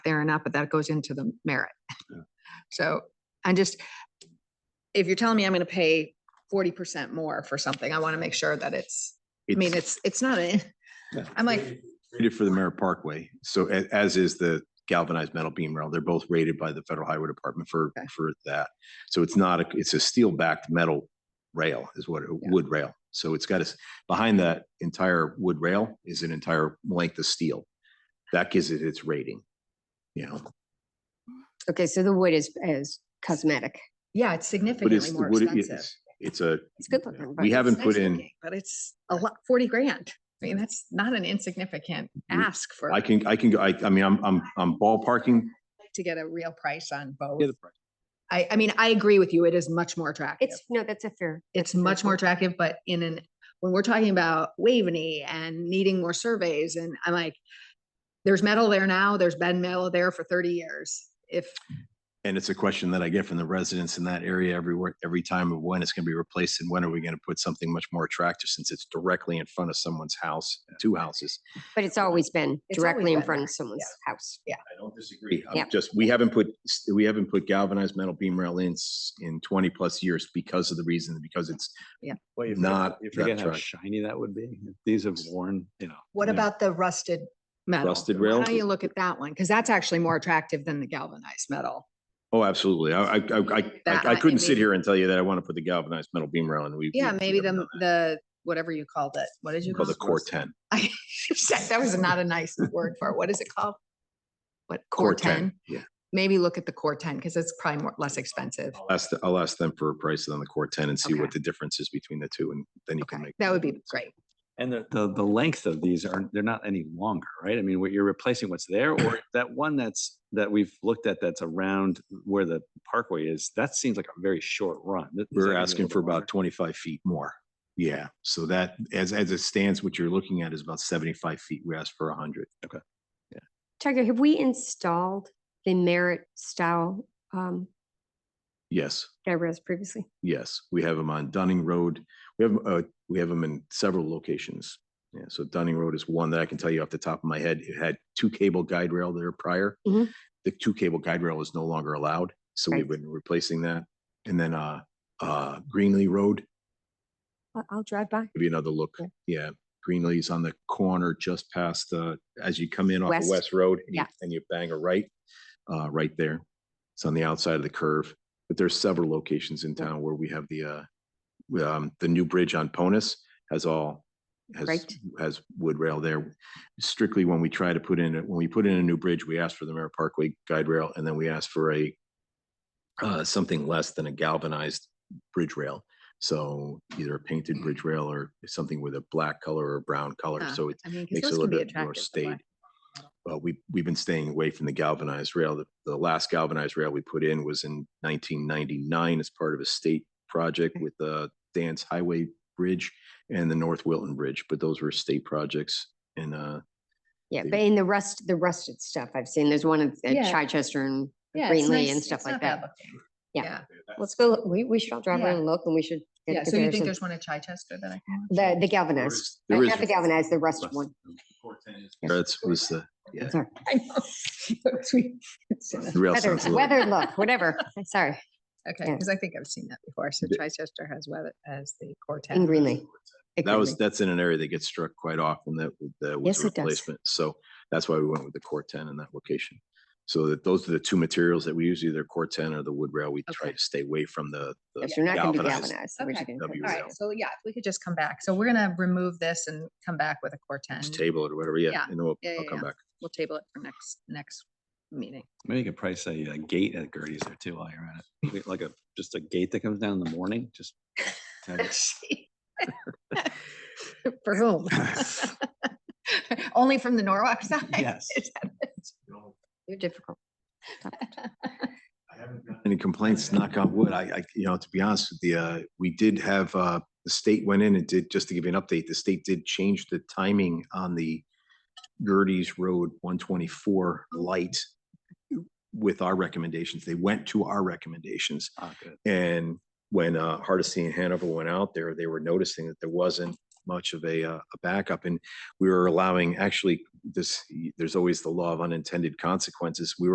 there or not, but that goes into the merit. Yeah. So I just, if you're telling me I'm gonna pay forty percent more for something, I want to make sure that it's, I mean, it's, it's not, a- Yeah. I'm like, Rated for the Merritt Parkway. So a- as is the galvanized metal beam rail. They're both rated by the Federal Highway Department for, Okay. for that. So it's not, a it's a steel backed metal rail is what, it- wood rail. So it's got us, behind that entire wood rail is an entire length of steel. That gives it its rating. You know, Okay, so the wood is, is cosmetic. yeah, it's but it's, significantly the more wood. expensive. it's, it's a, It's good looking. but we it's- haven't It's put nice in, looking, But it's a lot, forty grand. I mean, that's not an insignificant ask for, Mm-hmm. I can, I can, go. I, I mean, I'm, I'm, I'm ballparking. to get a real price on Yeah, both. the price. I, I mean, I agree with you. It is much more attractive. It's, no, that's a fair. It's much more attractive, but in an, when we're talking about Waveney and needing more surveys and I'm like, there's metal there now, there's been metal there for thirty years. If, And it's a question that I get from the residents in that area everywhere, every time of when it's gonna be replaced and when are we gonna put something much more attractive since it's directly in front of someone's house, two houses. But it's always been It's always directly in been front there, of someone's house. I don't disagree. Yeah. I'm just, we haven't put, we haven't put galvanized metal beam rail in, s- in twenty plus years because of the reason, because it's, Well, you not forget- you that forget how truck. shiny that would be. These have worn, you know. what yeah. about the rusted metal? Rusted Why rail? don't you look at that one? Cause that's actually more attractive than the galvanized metal. oh, absolutely. I, I, I- I, That I I couldn't sit mean- here and tell you that I want to put the galvanized metal beam rail in. We. we- Yeah, we maybe haven't the, done that. the, whatever you called it. What did you call Called the it? core ten. I, that was not a nice word for it. What is it called? What, Core core ten? Yeah. Maybe look at the core ten because it's probably more, less expensive. I'll ask, the- I'll ask them for a price on the core ten and see Okay. what the difference is between the two and then you Okay, can make. that would be great. And the, the, the length of these are, they're not any longer, right? I mean, what you're replacing what's there or that one that's, that we've looked at that's around where the parkway is, that seems like a very short run. Th- is that We're gonna be a asking little for bit longer? about twenty-five feet more. Yeah, so that, as, as it stands, what you're looking at is about seventy-five feet. We asked for hundred. Tiger, have we installed the merit style um Yes, that I read previously? yes, we have them on Dunning Road. We have, uh, we have them in several locations. Yeah, so Dunning Road is one that I can tell you off the top of my head. It had two cable guide rail there prior. Mhm. The two cable guide rail is no longer allowed, so we've Right. been replacing that. And then, uh, uh, Greenlee Road, I- I'll drive by. give you another look. Yeah. Yeah, Greenlee's on the corner just past, uh, as you come in off of West. West Road. and you- Yeah. And you bang a right, uh, right there. It's on the outside of the curve, but there's several locations in town where we have the, uh, w- um, the new bridge on Ponus has all, has, Right. has wood rail there. Strictly when we try to put in, a- when we put in a new bridge, we ask for the Merritt Parkway guide rail and then we ask for a, uh, something less than a galvanized bridge rail. So either a painted bridge rail or something with a black color or brown color, Yeah, so it I mean, 'cause makes it a those can little be bit more attractive, the black. staid. Well, we, we've been staying away from the galvanized rail. The, the last galvanized rail we put in was in nineteen ninety-nine as part of a state project Okay. with the Dan's Highway Bridge and the North Wilton Bridge, but those were state projects and, uh, Yeah, the- but in the rust, the rusted stuff I've seen, there's one at- at Yeah. Chichester and Yeah, it's Greenlee nice. and It's stuff not like bad that. looking. Yeah. Yeah. Let's go, look- we, we should all drive around Yeah. and look and we should. get a Yeah. So you think comparison. there's one at Chichester that I can? watch? The, the there galvanized, is- uh, there is- not the galvanized, the rusted one. that's, was the, yeah. Sorry. I know. It's in the a- rail Weather, sounds a little- weather look, whatever. Sorry, Okay, Yeah. because I think I've seen that before. So The- Chichester has weather as the quartet. in Greenlee. At That was, Greenlee. that's in an area that gets struck quite often that with the with Yes, the it does. replacement. So that's why we went with the core ten in that location. So that those are the two materials that we use, either core ten or the wood rail. We try Okay. to stay away from the. the If you're not gonna be galvanized. galvanized, we're just Okay. gonna That'd be put- All rail. right. So yeah, if we could just come back. So we're gonna remove this and come back with a quartet. Just table it or whatever, yeah, Yeah. and then we'll, Yeah, I'll yeah, come yeah. back. We'll table it for next, next meeting. Maybe you could price a, uh gate at Gertie's there too while you're at it. Wait, Like a, just a gate that comes down in the morning, just. have it- For whom? Only from the Norwalk side? Yes. Is that it? You're difficult. Any complaints, knock on wood, I, I, you know, to be honest with you, uh, we did have, uh, the state went in and did, just to give you an update, the state did change the timing on the Gertie's Road one twenty-four light with our recommendations. They went to our recommendations. Ah, good. And when uh, Hardesty and Hanover went out there, they were noticing that there wasn't much of a, uh, a backup and we were allowing actually this, there's always the law of unintended consequences. We were